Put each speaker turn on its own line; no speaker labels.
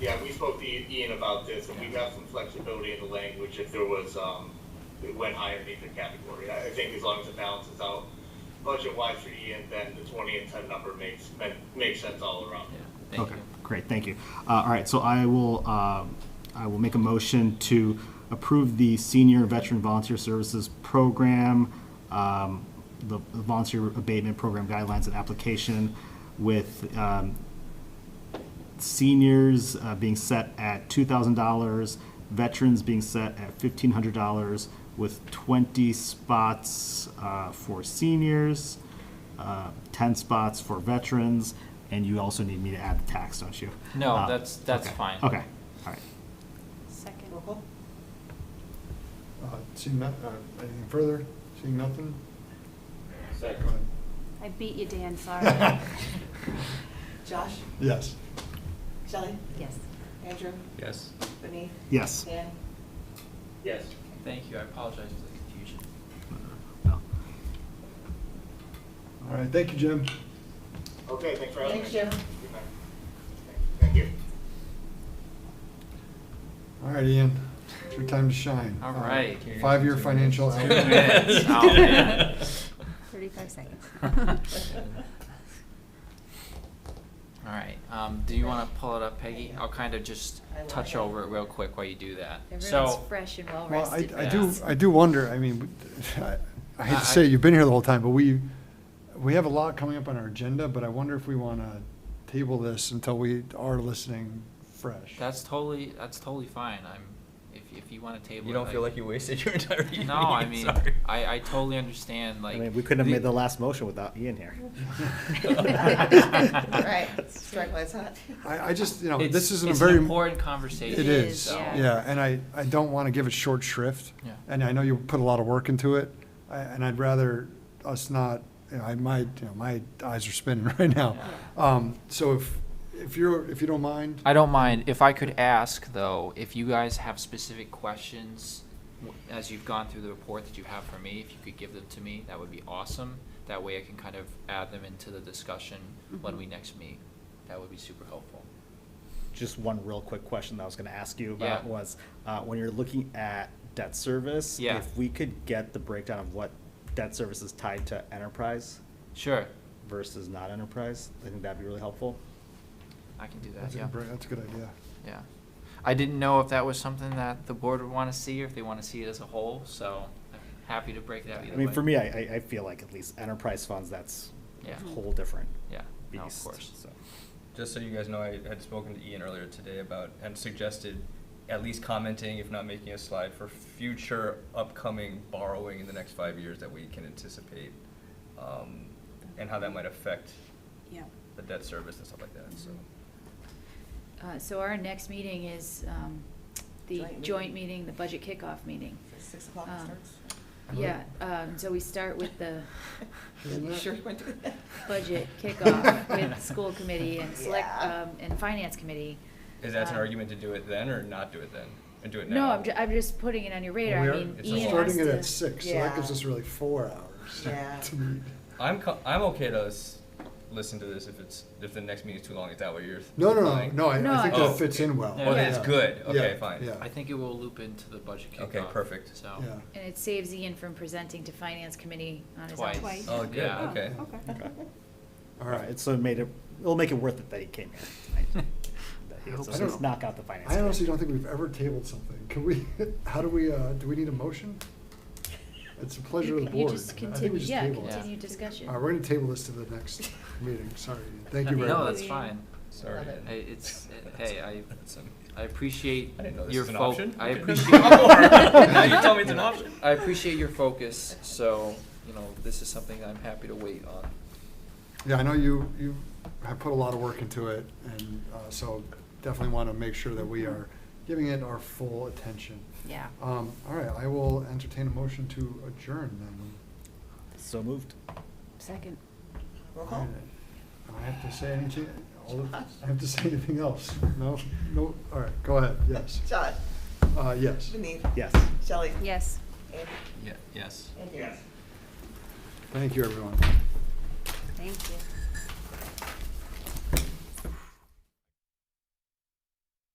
Yeah, we spoke to Ian about this, and we got some flexibility in the language if there was, um, it went higher in either category. I I think as long as it balances out budget-wise for Ian, then the twenty and ten number makes, men- makes sense all around.
Yeah, thank
Okay,
you.
great, thank you. Uh, All right, so I will, um, I will make a motion to approve the Senior Veteran Volunteer Services Program, um, the the Volunteer Abatement Program Guidelines and Application with um, seniors uh, being set at $2,000, veterans being set at $1,500, with 20 spots uh, for seniors, uh, 10 spots for veterans, and you also need me to add the tax, don't you?
No,
Uh,
that's- that's
okay,
fine.
Okay, all right.
Second.
Uh, Seeing that, uh, anything further? Seeing nothing?
Second.
Go ahead.
I beat you, Dan, sorry.
Josh,
Yes.
Shelley,
Yes.
Andrew,
Yes.
Whitney,
Yes.
Dan.
Yes.
Thank you, I apologize for the confusion.
No.
All right, thank you, Jim.
Okay, thanks for having me.
Thanks, Jim.
Good night. Thank you.
All right, Ian, it's your time to shine.
All
Uh,
right.
Five-year financial.
Two
outlook.
minutes. Oh, man.
35 seconds.
All right, um, do you wanna pull it up, Peggy? I'll kind of just
I will.
touch over it real quick while you do that.
Everyone's
So,
fresh and well
Well, I,
rested.
I
yeah.
do, I do wonder, I mean, I- I hate
I-
to say, you've been here the whole time, but we, we have a lot coming up on our agenda, but I wonder if we want to table this until we are listening fresh.
that's totally, that's totally fine, I'm, if, if you wanna table it.
You don't feel like you wasted your entire evening.
No, I mean,
sorry.
I, I totally understand, like.
I mean, we couldn't have made the
the-
last motion without Ian here.
Right, strike while it's hot.
I, I just, you know,
It's-
this isn't a
it's
very.
an important conversation.
It is,
so-
yeah.
yeah, and I, I don't want to give it short shrift.
Yeah.
And I know you put a lot of work into it, I- and I'd rather us not, you know, I, my, you know, my eyes are spinning right now. Um, so if, if you're, if you don't mind,
I don't mind. If I could ask, though, if you guys have specific questions w- as you've gone through the report that you have for me, if you could give them to me, that would be awesome. That way I can kind of add them into the discussion when
Mhm.
we next meet. That would be super helpful.
just one real quick question that I was gonna ask you about
Yeah.
was, uh, when you're looking at debt service,
Yeah.
if we could get the breakdown of what debt service is tied to enterprise
Sure,
versus not enterprise, I think that'd be really helpful.
I can do that,
that's a
yeah,
good, br- that's a good idea.
yeah. I didn't know if that was something that the board would want to see or if they want to see it as a whole, so I'm happy to break that either
I
way.
mean, for me, I, I, I feel like at least enterprise funds, that's
Yeah.
a whole different
Yeah, no, of
beast,
course.
so.
Just so you guys know, I had spoken to Ian earlier today about and suggested at least commenting, if not making a slide, for future upcoming borrowing in the next five years that we can anticipate, um, and how that might affect
Yeah. Mm-hmm.
the debt service and stuff like that. So.
Uh, So our next meeting is um, the
Joint
joint
meeting.
meeting, the budget kickoff meeting.
Six o'clock it
Um,
starts.
Yeah, um, so we start with the
Isn't
You
it?
sure you want to do that?
budget kickoff with school committee and select,
Yeah.
um, and finance committee.
Is that an
Um,
argument to do it then or not do it then? And do it now?
No, I'm, ju- I'm just putting it on your radar. I
We're-
mean,
It's a
Ian has
lot.
Starting it
to-
at six, so that gives
Yeah.
us really four hours.
Yeah.
to meet.
I'm co- I'm okay to s- listen to this if it's if the next meeting is too long. Is that what you're?
No, no, no,
implying?
no, I,
No,
I think
I-
that fits in well.
Oh, that's
Yeah.
good. Okay,
Yeah,
fine.
Yeah,
I think it will loop into the budget kickoff.
Okay, perfect.
So.
yeah.
And it saves Ian from presenting to finance committee on his own.
Twice.
Twice.
Oh, good.
Yeah.
Okay.
Okay.
All right.
So it made it, it'll make it worth it that he came here tonight. That he
I hope
was-
so.
Let's knock out the finance.
I honestly
committee.
don't think we've ever tabled something. Can we, how do we, uh, do we need a motion? It's a pleasure of the
You- You
board.
just
I think we
continue,
just
yeah,
table it.
continue
Yeah.
discussion.
All right, we're gonna table this to the next meeting. Sorry. Thank you very
No,
much.
that's fine.
Sorry.
Love it.
I- It's, hey, I,
That's um,
I appreciate
I didn't know this
your
was an
fo-
option.
I
Okay. Oh,
appreciate.
now you tell me it's an option.
I appreciate your focus, so, you know, this is something I'm happy to wait on.
Yeah, I know you, you have put a lot of work into it, and, uh, so definitely wanna make sure that we are giving it our full attention.
Yeah.
Um, all right, I will entertain a motion to adjourn
So moved.
Second.
Roll
then.
call.
Do I have to say anything, all of- I have to say anything else? No, no, all right, go ahead, yes.
Josh,
Uh, yes.
Whitney,
Yes.
Shelley,
Yes.
Andrew,
Yeah. Yes.
Andrew.
Yes.
Thank you, everyone.
Thank you.